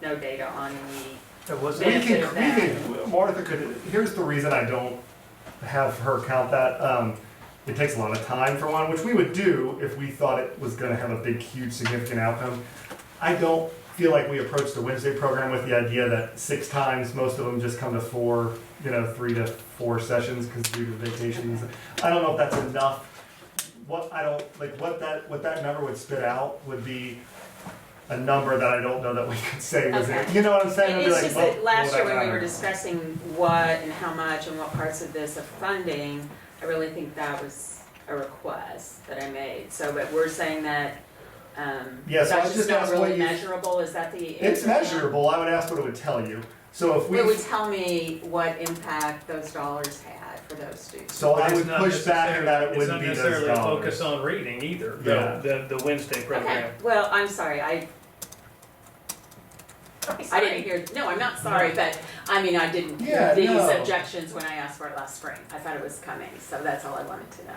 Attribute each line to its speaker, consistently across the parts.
Speaker 1: no data on the
Speaker 2: That wasn't.
Speaker 1: Yeah,
Speaker 3: We can,
Speaker 1: there's
Speaker 3: we
Speaker 1: that.
Speaker 3: can, Martha could, here's the reason I don't have her count that. Um, it takes a lot of time for one, which we would do if we thought it was gonna have a big, huge, significant outcome. I don't feel like we approached the Wednesday program with the idea that six times, most of them just come to four, you know, three to four sessions because due to vacations. I don't know if that's enough. What I don't, like, what that, what that number would spit out would be a number that I don't know that we could say was it.
Speaker 1: Okay.
Speaker 3: You know what I'm saying?
Speaker 1: And
Speaker 3: I'd be
Speaker 1: it's
Speaker 3: like,
Speaker 1: just
Speaker 3: well,
Speaker 1: that last
Speaker 3: well,
Speaker 1: year
Speaker 3: that
Speaker 1: when we were
Speaker 3: matters.
Speaker 1: discussing what and how much and what parts of this of funding, I really think that was a request that I made. So, but we're saying that, um,
Speaker 3: Yeah, so I
Speaker 1: that's
Speaker 3: just
Speaker 1: just not
Speaker 3: asked what
Speaker 1: really
Speaker 3: you-
Speaker 1: measurable, is that the?
Speaker 3: It's
Speaker 1: answer now?
Speaker 3: measurable, I would ask what it would tell you. So if
Speaker 1: It would
Speaker 3: we,
Speaker 1: tell me what impact those dollars had for those students.
Speaker 3: so I
Speaker 2: It's
Speaker 3: would
Speaker 2: not
Speaker 3: push back
Speaker 2: necessarily-
Speaker 3: that it wouldn't be
Speaker 2: It's
Speaker 3: those
Speaker 2: not necessarily
Speaker 3: dollars.
Speaker 2: focused on reading either,
Speaker 3: Yeah.
Speaker 2: the, the, the Wednesday
Speaker 1: Okay,
Speaker 2: program.
Speaker 1: well, I'm sorry, I, I didn't hear, no, I'm not sorry, but, I mean, I didn't
Speaker 3: Yeah,
Speaker 1: hear these
Speaker 3: no.
Speaker 1: objections when I asked for it last spring. I thought it was coming, so that's all I wanted to know.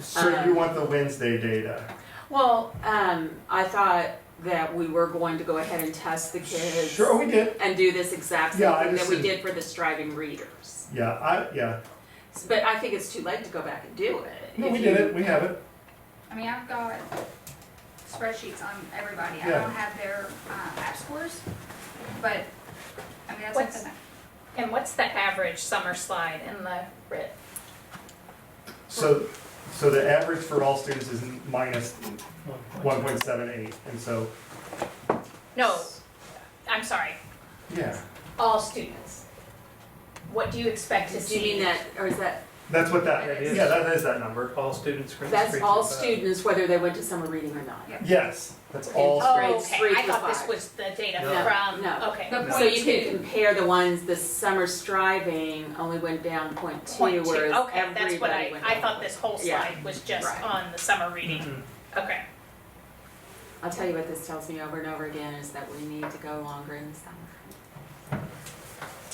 Speaker 3: So
Speaker 1: Uh-huh.
Speaker 3: you want the Wednesday data?
Speaker 1: Well, um, I thought that we were going to go ahead and test the kids.
Speaker 3: Sure, we did.
Speaker 1: And do this exact same
Speaker 3: Yeah, I
Speaker 1: thing that
Speaker 3: just
Speaker 1: we
Speaker 3: didn't-
Speaker 1: did for the striving readers.
Speaker 3: Yeah, I, yeah.
Speaker 1: S- But I think it's too late to go back and do it.
Speaker 3: No,
Speaker 1: If
Speaker 3: we
Speaker 1: you-
Speaker 3: did it, we have it.
Speaker 4: I mean, I've got spreadsheets on everybody. I
Speaker 3: Yeah.
Speaker 4: don't have their uh, app scores, but I mean, that's like
Speaker 5: What's-
Speaker 4: the-
Speaker 5: And what's the average summer slide in the RIT?
Speaker 3: So, so the average for all students is minus one point seven eight, and so,
Speaker 5: No, I'm sorry,
Speaker 3: yeah.
Speaker 5: all students. What do you expect to
Speaker 1: Do
Speaker 5: see?
Speaker 1: you mean that, or is that,
Speaker 3: That's what that,
Speaker 2: That is-
Speaker 3: yeah, that is that number.
Speaker 2: All students. grades three
Speaker 1: that's
Speaker 2: through
Speaker 1: all
Speaker 2: five.
Speaker 1: students, whether they went to summer reading or not?
Speaker 3: Yes, that's all.
Speaker 1: Oh,
Speaker 3: students.
Speaker 5: Oh,
Speaker 1: grades three
Speaker 5: okay, I
Speaker 1: through
Speaker 5: thought this
Speaker 1: five.
Speaker 5: was the data
Speaker 1: No,
Speaker 5: from,
Speaker 1: no.
Speaker 5: okay.
Speaker 4: The
Speaker 1: So you can
Speaker 4: point two.
Speaker 1: compare the ones, the summer striving only went down point two,
Speaker 5: Point two,
Speaker 1: whereas
Speaker 5: okay, that's what
Speaker 1: everybody
Speaker 5: I,
Speaker 1: went
Speaker 5: I
Speaker 1: up.
Speaker 5: thought this whole
Speaker 1: Yeah,
Speaker 5: slide was just
Speaker 1: right. Mm-hmm.
Speaker 5: on the summer reading,
Speaker 2: Mhm.
Speaker 5: okay.
Speaker 1: I'll tell you what this tells me over and over again is that we need to go longer in the summer.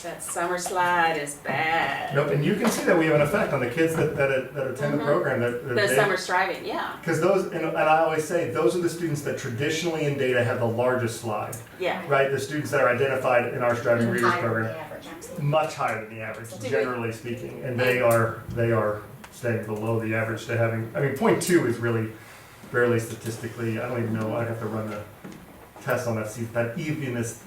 Speaker 1: That summer slide is bad.
Speaker 3: Nope, and you can see that we have an effect on the kids that, that, that attend the
Speaker 1: Mhm.
Speaker 3: program, that. that
Speaker 1: The
Speaker 3: they-
Speaker 1: summer striving, yeah,
Speaker 3: Because those, and, and I always say, those are the students that traditionally in data have the largest slide,
Speaker 1: yeah.
Speaker 3: right? The students that are identified in our striving readers program,
Speaker 4: average, absolutely.
Speaker 3: much higher than the average,
Speaker 1: Do we-
Speaker 3: generally speaking, and they are they are staying below the average. They having, I mean, point two is really barely statistically. I don't even know. I'd have to run the test on that see if that even is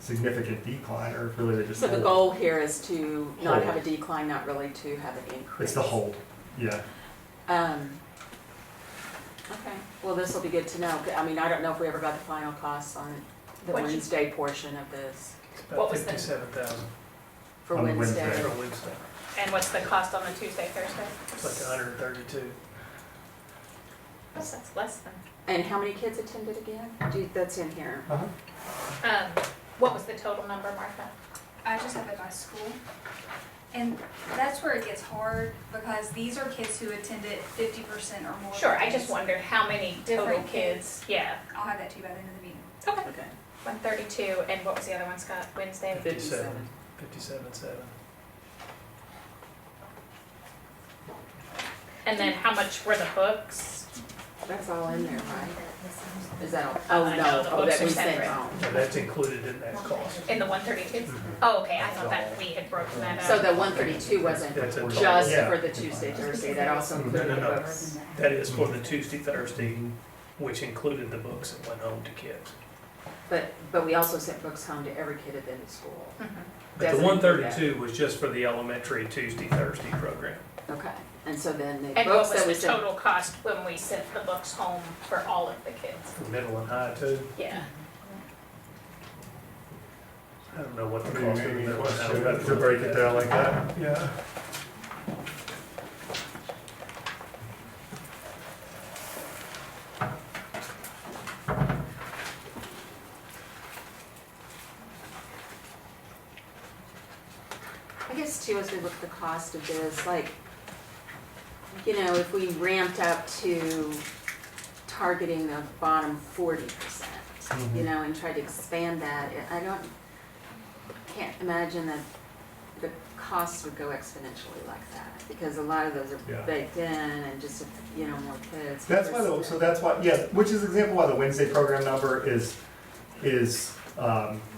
Speaker 3: significant decline or if really they just
Speaker 1: So the
Speaker 3: hold.
Speaker 1: goal here is to not
Speaker 3: Hold.
Speaker 1: have a decline, not really to have an increase.
Speaker 3: It's the hold. Yeah.
Speaker 1: Um, okay, well, this will be good to know. I mean, I don't know if we ever got the final costs on the
Speaker 5: What you-
Speaker 1: Wednesday portion of this
Speaker 5: What
Speaker 2: About
Speaker 5: was the-
Speaker 2: fifty-seven thousand
Speaker 1: for
Speaker 3: On the
Speaker 1: Wednesday.
Speaker 3: Wednesday.
Speaker 2: for Wednesday,
Speaker 5: And what's the cost on a Tuesday, Thursday?
Speaker 2: it's like hundred and thirty-two.
Speaker 5: That's that's less than.
Speaker 1: And how many kids attended again? Do, that's in here.
Speaker 3: Uh-huh.
Speaker 5: Um, what was the total number, Martha?
Speaker 4: I just have it by school. And that's where it gets hard because these are kids who attended fifty percent or more.
Speaker 5: Sure, I
Speaker 4: days.
Speaker 5: just wondered how many total
Speaker 4: Different
Speaker 5: kids, yeah.
Speaker 4: I'll have that to you by the end of the meeting.
Speaker 5: Okay.
Speaker 1: Okay.
Speaker 5: One thirty-two, and what was the other one, Scott? Wednesday?
Speaker 2: Fifty-seven. Fifty-seven, seven.
Speaker 5: And then how much were the books?
Speaker 1: That's all in there, right? Is that all? Oh,
Speaker 5: I know,
Speaker 1: no,
Speaker 5: the
Speaker 1: oh,
Speaker 5: books
Speaker 1: that we
Speaker 5: are
Speaker 1: sent
Speaker 5: separate.
Speaker 1: home.
Speaker 2: And that's included in that cost.
Speaker 5: In the one thirty-two?
Speaker 1: Mm-hmm.
Speaker 2: Mhm.
Speaker 5: Oh, okay, I thought that we had broken that
Speaker 1: So
Speaker 5: up.
Speaker 1: the one thirty-two wasn't
Speaker 2: That's a total.
Speaker 1: just
Speaker 3: Yeah.
Speaker 1: for the Tuesday, Thursday, that also
Speaker 3: No,
Speaker 1: included
Speaker 2: no,
Speaker 1: the
Speaker 2: no.
Speaker 1: books.
Speaker 2: That is for
Speaker 3: Mm-hmm.
Speaker 2: the Tuesday, Thursday, which included the books that went home to kids.
Speaker 1: But, but we also sent books home to every kid at the school.
Speaker 5: Mhm.
Speaker 2: But the
Speaker 1: Doesn't
Speaker 2: one
Speaker 1: include that.
Speaker 2: thirty-two was just for the elementary Tuesday, Thursday program.
Speaker 1: Okay, and so then the
Speaker 5: And what
Speaker 1: books that we
Speaker 5: was the
Speaker 1: sent,
Speaker 5: total cost when we sent the books home for all of the kids?
Speaker 2: For middle and high too,
Speaker 5: Yeah.
Speaker 2: I don't know what the
Speaker 3: Maybe-
Speaker 2: cost of the
Speaker 3: maybe
Speaker 2: middle and high.
Speaker 3: question to break it down like that. Yeah.
Speaker 1: I guess too, as we look at the cost of this, like, you know, if we ramped up to targeting the bottom forty percent, you
Speaker 3: Mm-hmm.
Speaker 1: know, and tried to expand that, I I don't, can't imagine that the costs would go exponentially like that, because a lot of those
Speaker 3: Yeah.
Speaker 1: are baked in and just, you know, more kids.
Speaker 3: That's why, the- so that's why, yeah, which is example why the Wednesday program number is, is, um,